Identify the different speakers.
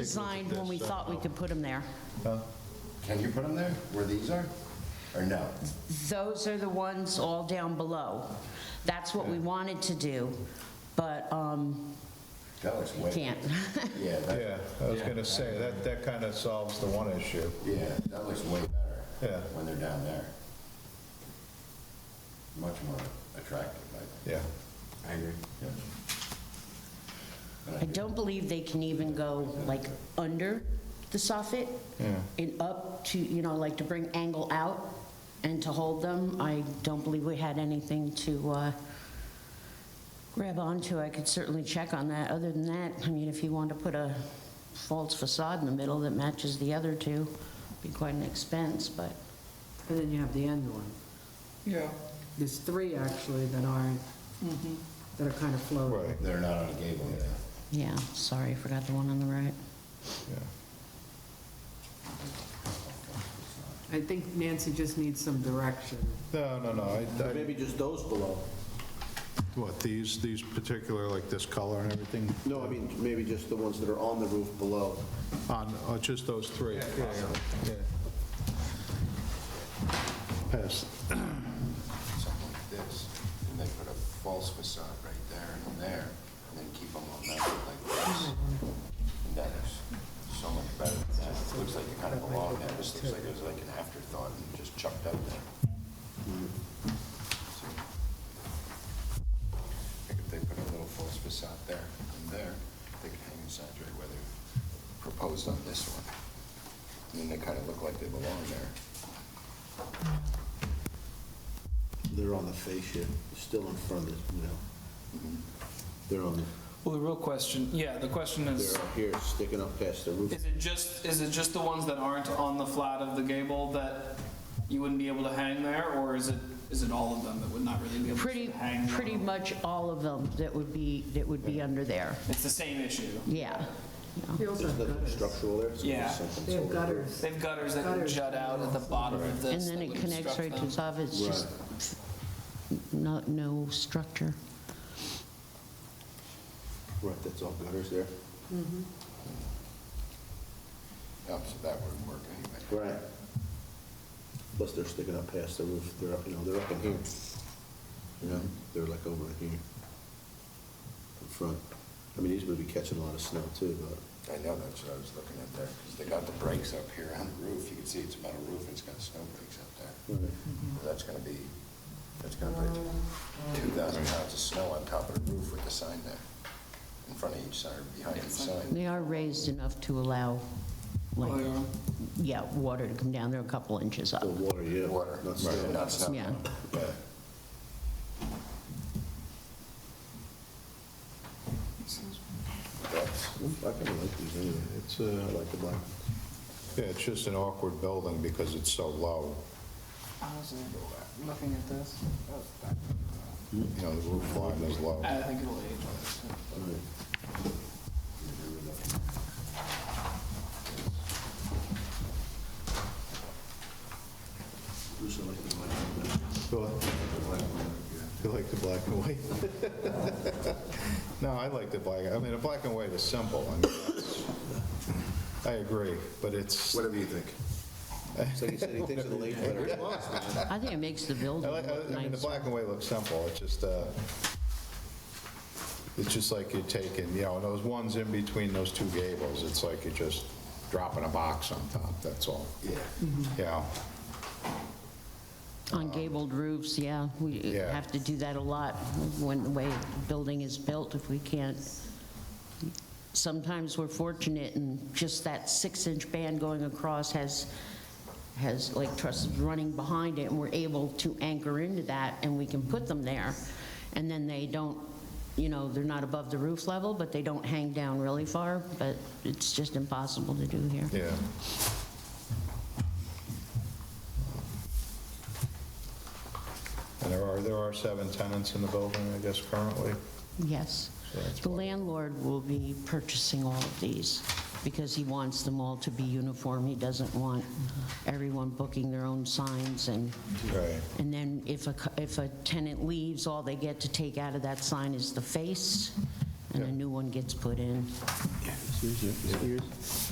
Speaker 1: designed when we thought we could put them there.
Speaker 2: Can you put them there, where these are? Or no?
Speaker 1: Those are the ones all down below. That's what we wanted to do, but um,
Speaker 2: That looks way...
Speaker 1: can't.
Speaker 2: Yeah, that,
Speaker 3: Yeah, I was gonna say, that, that kind of solves the one issue.
Speaker 2: yeah, that looks way better
Speaker 3: Yeah,
Speaker 2: when they're down there. Much more attractive, I
Speaker 3: yeah.
Speaker 2: I agree.
Speaker 1: I don't believe they can even go like under the soffit and up to, you know, like to bring angle out and to hold them. I don't believe we had anything to uh, grab onto. I could certainly check on that. Other than that, I mean, if you want to put a false facade in the middle that matches the other two, be quite an expense, but
Speaker 4: And then you have the end one.
Speaker 5: Yeah.
Speaker 4: There's three actually that aren't, that are kind of floating.
Speaker 3: Right,
Speaker 2: They're not on a gable yet.
Speaker 1: yeah, sorry, I forgot the one on the right.
Speaker 3: yeah.
Speaker 4: I think Nancy just needs some direction.
Speaker 3: No, no, no, I, I-
Speaker 5: Maybe just those below.
Speaker 3: what, these, these particular, like this color and everything?
Speaker 5: No, I mean, maybe just the ones that are on the roof below.
Speaker 3: On, oh, just those three? Yeah. Pass.
Speaker 2: Something like this, and they put a false facade right there and there, and then keep them on that like this. And that is so much better than that. It looks like it kind of belonged there. This looks like it was like an afterthought and just chucked up there. So, I think if they put a little false facade there and there, they could hang inside right where they proposed on this one. And then they kind of look like they belong there.
Speaker 5: They're on the fascia, still in front of, it, you know. They're on,
Speaker 6: Well, the real question, yeah, the question
Speaker 5: the-
Speaker 6: is,
Speaker 5: they're up here, sticking up past the roof.
Speaker 6: is it just, is it just the ones that aren't on the flat of the gable that you wouldn't be able to hang there? Or is it, is it all of them that would not really be able
Speaker 1: Pretty,
Speaker 6: to hang?
Speaker 1: pretty
Speaker 6: there?
Speaker 1: much all of them that would be, that would be under there,
Speaker 6: It's the same issue.
Speaker 1: yeah.
Speaker 4: They also have
Speaker 5: There's nothing
Speaker 4: gutters.
Speaker 5: structural there. it's
Speaker 6: Yeah.
Speaker 5: just something
Speaker 4: They have
Speaker 5: over there.
Speaker 4: gutters.
Speaker 6: They have gutters that can
Speaker 4: Gutters.
Speaker 6: jut out at the bottom of
Speaker 1: And
Speaker 6: this.
Speaker 1: then
Speaker 6: that
Speaker 1: it
Speaker 6: would
Speaker 1: connects
Speaker 6: obstruct
Speaker 1: right to
Speaker 6: them.
Speaker 1: the top, it's just not, no structure.
Speaker 5: Right, that's all gutters there.
Speaker 2: Yeah, so that wouldn't work anyway.
Speaker 5: Right. Plus they're sticking up past the roof, they're up, you know, they're up in here. You know, they're like over here. In front. I mean, these would be catching a lot of snow too, but.
Speaker 2: I know, that's what I was looking at there, because they got the brakes up here on the roof, you can see it's a metal roof, it's got snow brakes up there. So That's gonna be, that's gonna put two thousand pounds of snow on top of the roof with the sign there, in front of each sign, or behind each sign.
Speaker 1: They are raised enough to allow,
Speaker 6: Oh,
Speaker 1: like,
Speaker 6: yeah.
Speaker 1: yeah, water to come down, they're a couple inches up,
Speaker 5: The water, yeah.
Speaker 2: Water,
Speaker 5: Not snow.
Speaker 2: not snow.
Speaker 1: yeah.
Speaker 2: That's,
Speaker 5: I kind of like these anyway.
Speaker 3: It's,
Speaker 5: I
Speaker 3: uh,
Speaker 5: like the black.
Speaker 3: yeah, it's just an awkward building because it's so low.
Speaker 6: Looking at this,
Speaker 3: You know, the roof line is low.
Speaker 6: I think it'll age.
Speaker 3: You like the black and white? No, I like the black, I mean, the black and white is simple. I mean, that's- I agree, but it's, I
Speaker 2: whatever you think.
Speaker 5: It's like you said, he thinks of the late letter.
Speaker 1: I think it makes the building
Speaker 3: like,
Speaker 1: look
Speaker 3: I mean, the
Speaker 1: nice.
Speaker 3: black and white looks simple, it's just, uh, it's just like you're taking, you know, those ones in between those two gables, it's like you're just dropping a box on top, that's all.
Speaker 2: Yeah.
Speaker 3: Yeah,
Speaker 1: On gabled roofs, yeah, we
Speaker 3: Yeah.
Speaker 1: have to do that a lot when the way building is built, if we can't. Sometimes we're fortunate and just that six-inch band going across has, has like trusses running behind it, and we're able to anchor into that, and we can put them there. And then they don't, you know, they're not above the roof level, but they don't hang down really far, but it's just impossible to do here.
Speaker 3: yeah. And there are, there are seven tenants in the building, I guess, currently.
Speaker 1: Yes. The landlord will be purchasing all of these because he wants them all to be uniform. He doesn't want everyone booking their own signs and,
Speaker 3: Right.
Speaker 1: and then if a, cu- if a tenant leaves, all they get to take out of that sign is the face
Speaker 7: and a new one gets put in.
Speaker 1: Excuse me. Excuse.